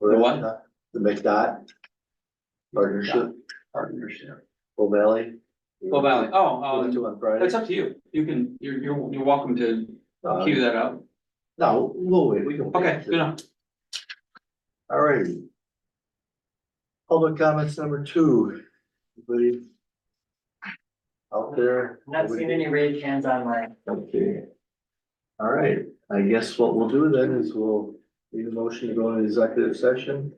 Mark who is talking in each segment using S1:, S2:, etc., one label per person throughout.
S1: The
S2: what?
S1: The McDot partnership,
S2: Partnership.
S1: Bull Valley.
S2: Well, Valley, oh,
S1: Went
S2: um,
S1: to on Friday.
S2: that's up to you. You can, you're, you're, you're welcome to
S1: Uh,
S2: queue that up.
S1: No, we'll wait, we can.
S2: Okay, good enough.
S1: All right. Public comments number two. Anybody? Out there?
S3: Not seen any raised hands online.
S1: Okay. All right, I guess what we'll do then is we'll need a motion to go into executive session.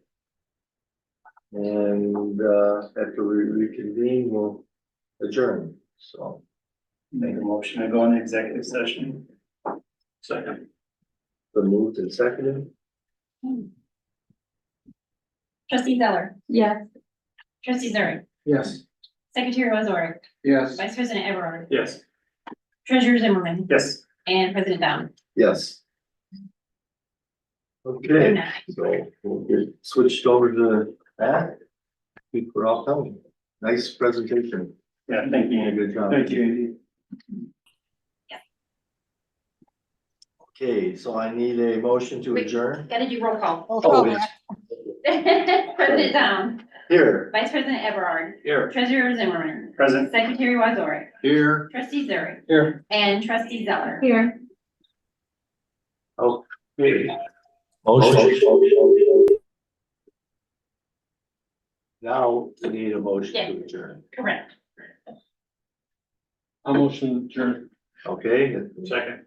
S1: And uh, after we reconvene, we'll adjourn, so.
S4: Make a motion to go into executive session. Second.
S1: The moved and seconded,
S5: Trustee Zeller.
S6: Yes.
S5: Trustee Zurich.
S4: Yes.
S5: Secretary Wazorek.
S4: Yes.
S5: Vice President Everard.
S4: Yes.
S5: Treasurer Zimmerman.
S4: Yes.
S5: And President Down.
S1: yes. Okay. So we'll get switched over to that. People are all coming. Nice presentation.
S4: Yeah, thank
S1: Doing
S4: you.
S1: a Good job.
S4: Thank you. Andy.
S1: Okay, so I need a motion to
S5: Wait.
S1: adjourn.
S5: Gotta do roll call.
S1: Oh, it's
S5: President Down.
S1: here.
S5: Vice President Everard.
S2: Here.
S5: Treasurer Zimmerman.
S4: Present.
S5: Secretary Wazorek.
S2: Here.
S5: Trustee Zurich.
S2: Here.
S5: And Trustee Zeller.
S6: Here.
S1: Now we need a motion to
S5: Yeah.
S1: adjourn.
S5: Correct.
S4: I'll motion adjourn.
S1: Okay,
S4: Second.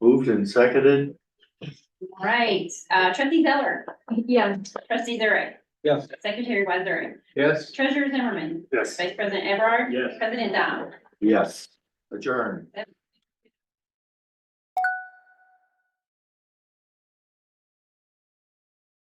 S1: moved and seconded.
S5: All Right, uh, Trustee Zeller.
S6: Yes.
S5: Trustee Zurich.
S4: Yes.
S5: Secretary Wazorek.
S4: Yes.
S5: Treasurer Zimmerman.
S4: Yes.
S5: Vice President Everard.
S4: Yes.
S5: President Down.
S1: Yes, adjourn.